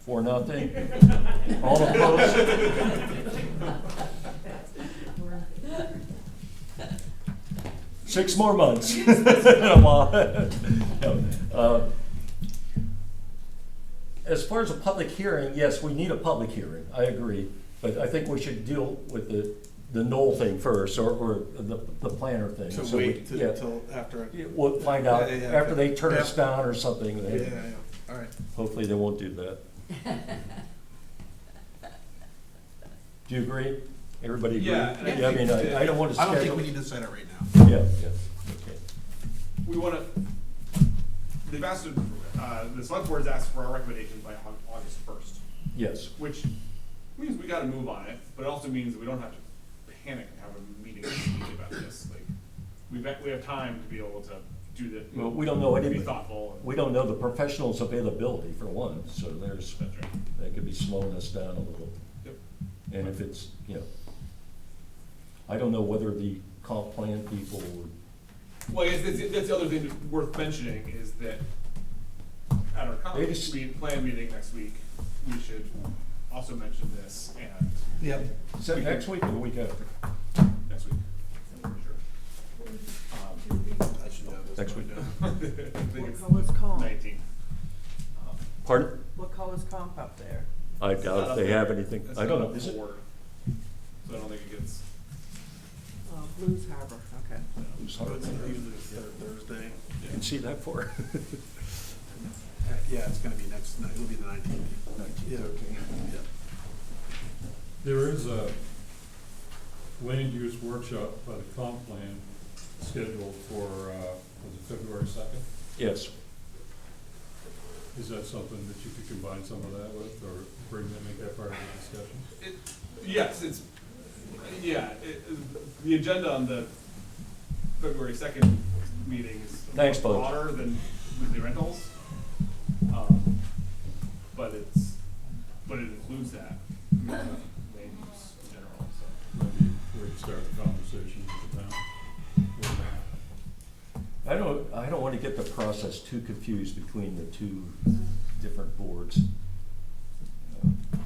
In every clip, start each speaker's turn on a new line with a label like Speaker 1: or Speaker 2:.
Speaker 1: Four, nothing. All opposed? Six more months. I'm on. Uh, As far as a public hearing, yes, we need a public hearing, I agree. But I think we should deal with the, the Knoll thing first, or, or the, the planner thing.
Speaker 2: To
Speaker 1: So we-
Speaker 2: wait
Speaker 1: yeah.
Speaker 2: until after.
Speaker 1: Yeah, We'll find out
Speaker 2: Yeah, yeah,
Speaker 1: after they turn us
Speaker 2: yeah.
Speaker 1: down or something.
Speaker 2: Yeah,
Speaker 1: then
Speaker 2: yeah, yeah, all right.
Speaker 1: Hopefully they won't do that. Do you agree? Everybody agree?
Speaker 3: Yeah, and I
Speaker 1: I mean,
Speaker 3: think
Speaker 1: I,
Speaker 3: that-
Speaker 1: I don't want to
Speaker 2: I
Speaker 1: schedule.
Speaker 2: don't think we need to set it right now.
Speaker 1: Yeah, yeah, okay.
Speaker 3: We wanna, they've asked, uh, the select board's asked for our recommendations by Au- August first,
Speaker 1: Yes,
Speaker 3: which means we gotta move on it, but it also means that we don't have to panic and have a meeting immediately about this, like, we've, got- we have time to be able to do the.
Speaker 1: Well, we don't know
Speaker 3: Be
Speaker 1: anything.
Speaker 3: thoughtful. and-
Speaker 1: we don't know the professionals' availability for one, so there's,
Speaker 3: That's right.
Speaker 1: that could be slowing us down a little.
Speaker 3: Yep.
Speaker 1: And if it's, you know, I don't know whether the comp plan people would,
Speaker 3: Well, I guess that's, that's the other thing that's worth mentioning is that at our
Speaker 1: They
Speaker 3: conference
Speaker 1: just-
Speaker 3: meet- plan meeting next week, we should also mention this and
Speaker 2: Yep.
Speaker 1: is that next week or the week after?
Speaker 3: next week. I'm pretty sure.
Speaker 2: I should know this
Speaker 1: Next
Speaker 2: by
Speaker 1: week.
Speaker 2: now.
Speaker 3: Um, I think
Speaker 4: What
Speaker 3: it's
Speaker 4: color's comp?
Speaker 3: nineteen. Um,
Speaker 1: Pardon?
Speaker 4: What color's comp up there?
Speaker 1: I
Speaker 3: it's not
Speaker 1: doubt if
Speaker 3: up
Speaker 1: they
Speaker 3: there.
Speaker 1: have anything,
Speaker 3: It's
Speaker 1: I don't
Speaker 3: not
Speaker 1: know,
Speaker 3: up
Speaker 1: is it?
Speaker 3: for- So I don't think it gets,
Speaker 4: Oh, Blues Harbor, okay.
Speaker 3: you know,
Speaker 1: It's
Speaker 2: So
Speaker 1: hard
Speaker 2: it's
Speaker 1: to know.
Speaker 2: usually the third Thursday.
Speaker 1: You can see that for.
Speaker 2: Uh, Yeah, it's gonna be next, night. it'll be the nineteenth. Yeah, yeah.
Speaker 5: There is a land use workshop by the comp plan scheduled for, uh, was it February second?
Speaker 1: Yes,
Speaker 5: Is that something that you could combine some of that with, or bring that, make that part of the discussion?
Speaker 3: It, yes, it's, yeah, it, the agenda on the February second meeting is a
Speaker 1: Thanks, Bo.
Speaker 3: lot broader than weekly rentals. Um, But it's, but it includes that, uh, land use in general, so.
Speaker 5: Maybe we could start the conversation with the town. with that.
Speaker 1: I don't, I don't want to get the process too confused between the two different boards.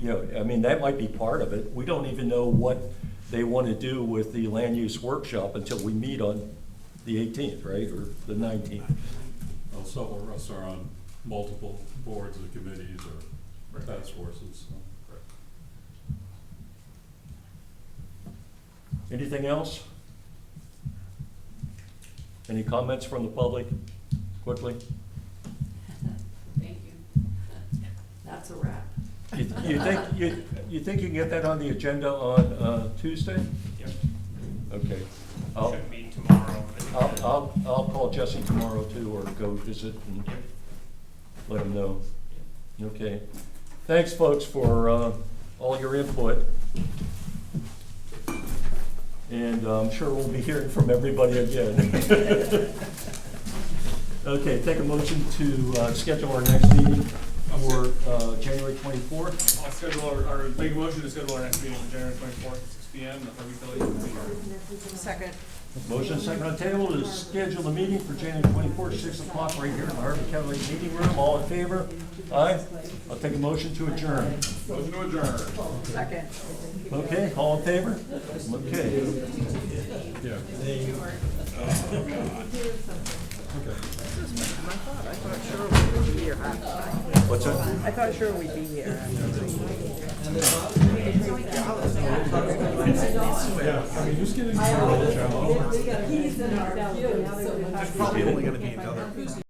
Speaker 1: You know, I mean, that might be part of it. We don't even know what they want to do with the land use workshop until we meet on the eighteenth, right, or the nineteenth.
Speaker 5: Well, several of us are on multiple boards and committees or
Speaker 3: Right.
Speaker 5: task forces, so.
Speaker 1: Anything else? Any comments from the public, quickly?
Speaker 6: Thank you.
Speaker 4: That's a wrap.
Speaker 1: You you think, you, you think you can get that on the agenda on uh, Tuesday?
Speaker 3: Yep.
Speaker 1: Okay. I'll-
Speaker 3: Should meet tomorrow.
Speaker 1: I'll, I'll, I'll call Jesse tomorrow too, or go visit and let him know. Okay. Thanks, folks, for, uh, all your input. And uh, I'm sure we'll be hearing from everybody again. Okay, take a motion to, uh, schedule our next meeting for, uh, January twenty-fourth.
Speaker 3: I'll schedule our, our, make a motion to schedule our next meeting on January twenty-fourth, six P M, the Harvey Village.
Speaker 4: Second.
Speaker 1: Motion second on table to schedule the meeting for January twenty-fourth, six o'clock, right here in the Harvey County Meeting Room. All in favor? Aye. I'll take a motion to adjourn.
Speaker 3: Motion to adjourn.
Speaker 4: Second.
Speaker 1: Okay, all in favor? Okay.
Speaker 5: Yeah,
Speaker 4: I thought, I thought sure we'd be here. I
Speaker 1: What's that?
Speaker 4: I thought sure we'd be here.
Speaker 5: yeah, I mean, who's getting the challenge?
Speaker 2: It's probably only gonna be another